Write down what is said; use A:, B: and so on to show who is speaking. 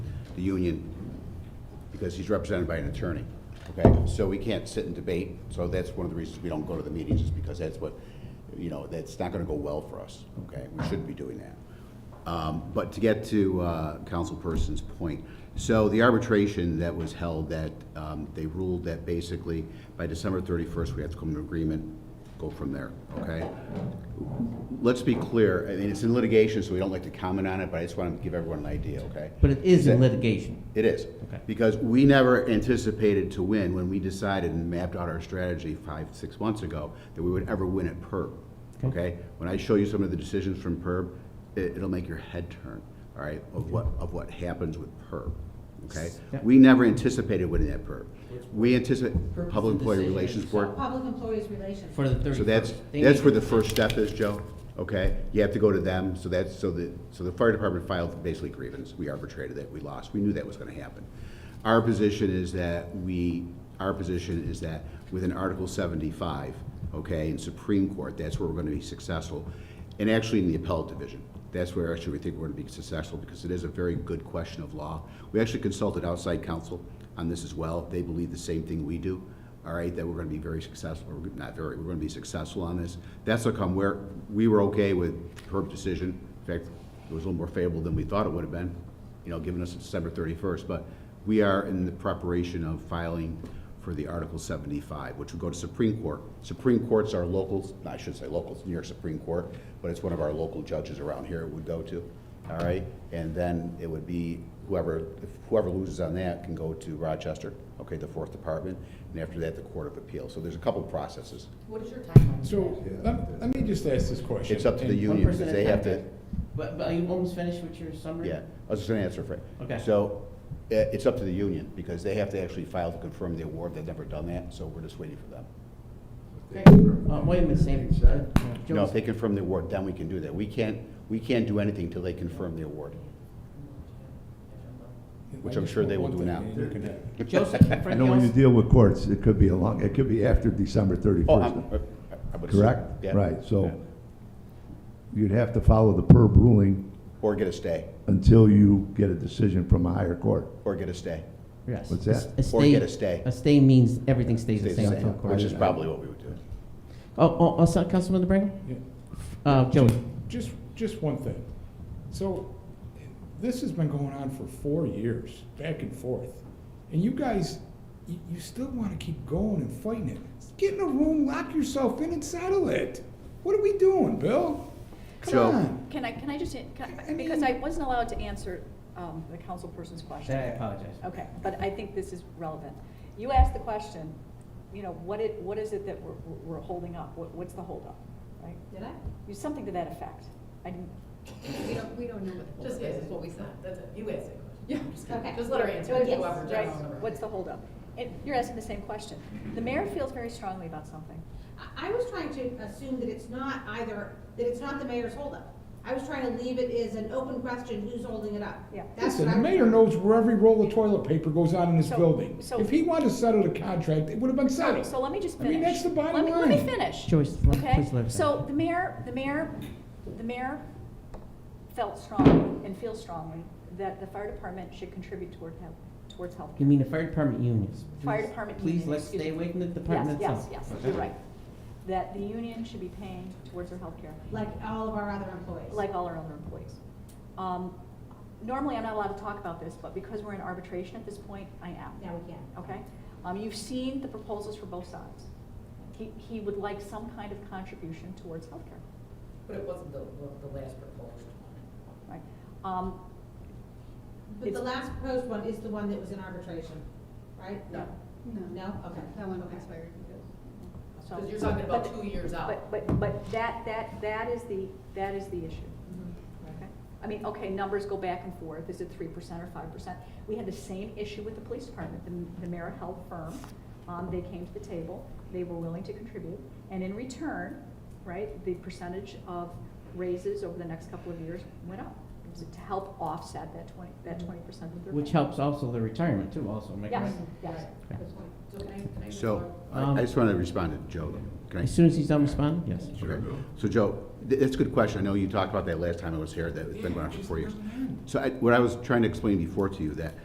A: the union, because he's represented by an attorney, okay? So we can't sit and debate, so that's one of the reasons we don't go to the meetings, is because that's what, you know, that's not gonna go well for us, okay? We shouldn't be doing that. Um, But to get to uh, councilperson's point, so the arbitration that was held, that um, they ruled that basically by December 31st, we have to come to an agreement, go from there, okay? Let's be clear, I mean, it's in litigation, so we don't like to comment on it, but I just want to give everyone an idea, okay?
B: But it is in
A: Exactly.
B: litigation.
A: It is.
B: Okay.
A: Because we never anticipated to win when we decided and mapped out our strategy five, six months ago, that we would ever win at PERB.
B: Okay.
A: Okay? When I show you some of the decisions from PERB, it, it'll make your head turn, all right, of what, of what happens with PERB. Okay?
B: Yeah.
A: We never anticipated winning at PERB. We anticipate,
B: PERB is
A: Public
B: the
A: Employee
B: decision
A: Relations
B: itself.
A: Board,
C: Public Employees Relations.
B: For the thirty-first.
A: so that's, that's where the first step is, Joe, okay? You have to go to them, so that's, so the, so the fire department filed basically grievance, we arbitrated it, we lost, we knew that was gonna happen. Our position is that we, our position is that within Article seventy-five, okay, in Supreme Court, that's where we're gonna be successful. And actually in the appellate division, that's where actually we think we're gonna be successful, because it is a very good question of law. We actually consulted outside counsel on this as well, they believe the same thing we do all right, that we're gonna be very successful, or not very, we're gonna be successful on this. That's how come we're, we were okay with Herb's decision. In fact, it was a little more favorable than we thought it would have been, you know, given us December thirty-first. But we are in the preparation of filing for the Article seventy-five, which would go to Supreme Court. Supreme Court's our locals, I shouldn't say locals, New York Supreme Court, but it's one of our local judges around here it would go to, all right? And then it would be whoever, if whoever loses on that can go to Rochester, okay, the Fourth Department, and after that, the Court of Appeal. So there's a couple processes.
C: What is your timeline?
D: So, let, let me just ask this question.
A: It's up to the
D: And-
A: union, because they have to,
B: But, but are you almost finished with your summary?
A: yeah, I was just gonna answer Frank.
B: Okay.
A: So, i- it's up to the union, because they have to actually file to confirm the award, they've never done that, so we're just waiting for them.
B: Okay. Uh, wait a minute, Sam. Uh,
A: No,
B: Joe,
A: if they confirm the award, then we can do that. We can't, we can't do anything till they confirm the award. Which I'm sure they will do now.
D: You can have-
B: Joseph,
E: I
B: Frank
E: know when you
B: Ellis,
E: deal with courts, it could be a long, it could be after December
A: Oh, I'm,
E: thirty-first,
A: I would assume,
E: correct?
A: yeah.
E: Right,
A: Yeah.
E: so you'd have to follow the PERB ruling
A: Or get a stay,
E: until you get a decision from a higher court.
A: or get a stay.
B: yes.
E: What's that?
B: A
A: Or get a
B: stay,
A: stay.
B: a stay means everything stays the
A: Stay the
B: same.
A: same,
E: until court
A: which is
E: is-
A: probably what we would do.
B: Oh, oh, oh, so- Councilman DeBrango?
D: Yeah.
B: Uh, Joey?
D: Just, just one thing. So, this has been going on for four years, back and forth. And you guys, you, you still wanna keep going and fighting it. Get in a room, lock yourself in and settle it. What are we doing, Bill?
A: Joe.
D: Come on.
F: Can I, can I just, can I-
D: I
F: because I
D: mean-
F: wasn't allowed to answer um, the councilperson's
B: I
F: question.
B: apologize.
F: Okay, but I think this is relevant. You asked the question, you know, what it, what is it that we're, we're holding up? What, what's the holdup, right?
C: Did I?
F: You, something to that effect. I didn't,
C: We don't, we don't know what the.
G: Just
C: holdup
G: guess,
C: is.
G: it's what we said, that's it, you answer.
C: Yeah. Okay.
G: Just let her answer, it,
F: Yes,
G: whoever,
F: right.
G: Jeff's on the road.
F: What's the holdup? And you're asking the same question. The mayor feels very strongly about something.
C: I, I was trying to assume that it's not either, that it's not the mayor's holdup. I was trying to leave it as an open question, who's holding it up?
F: Yeah.
C: That's
D: Listen,
C: what
D: the
C: I was
D: mayor
C: trying-
D: knows where every roll of toilet paper goes on in this
F: So-
D: building.
F: so-
D: If he wanted to settle the contract, it would have been settled.
F: So let me just
D: I mean,
F: finish.
D: that's the bottom
F: Let me- Let me
D: line.
F: finish.
B: Joyce, let-
F: Okay?
B: please let her
F: So
B: finish.
F: the mayor, the mayor, the mayor felt strongly and feels strongly that the fire department should contribute toward health, towards health.
B: You mean the fire department unions?
F: Fire
B: Please-
F: department unions,
B: Please, let's
F: excuse
B: stay
F: me.
B: away from the department
F: Yes,
B: itself.
F: yes, yes, you're right. That the union should be paying towards their health care,
C: Like all of our other employees.
F: like all our other employees. Um, Normally, I'm not allowed to talk about this, but because we're in arbitration at this point, I am.
C: Now we can.
F: Okay? Um, you've seen the proposals for both sides. He, he would like some kind of contribution towards healthcare,
G: But it wasn't the, the last proposed one.
F: right? Um,
C: But the last proposed one is the one that was in arbitration, right?
G: No,
C: No? Okay. That one expired.
F: so-
G: because you're talking about
F: but-
G: two years out.
F: But, but, but that, that, that is the, that is the issue.
C: Mm-hmm.
F: Okay. I mean, okay, numbers go back and forth, is it three percent or five percent? We had the same issue with the police department, the, the mayor held firm, um, they came to the table, they were willing to contribute, and in return, right, the percentage of raises over the next couple of years went up, to help offset that twenty, that twenty percent that they're.
B: Which
F: paying.
B: helps also the retirement too, also, am I
F: Yes,
B: correct?
F: yes.
G: So can I, can I? move
A: So,
G: on?
A: I I just want to respond to Joe, though. Can I?
B: As soon as he's done responding, yes.
A: Okay. So Joe, th- that's a good question. I know you talked about that last time I was here, that it's been going on for four years. So I, what I was trying to explain before to you, that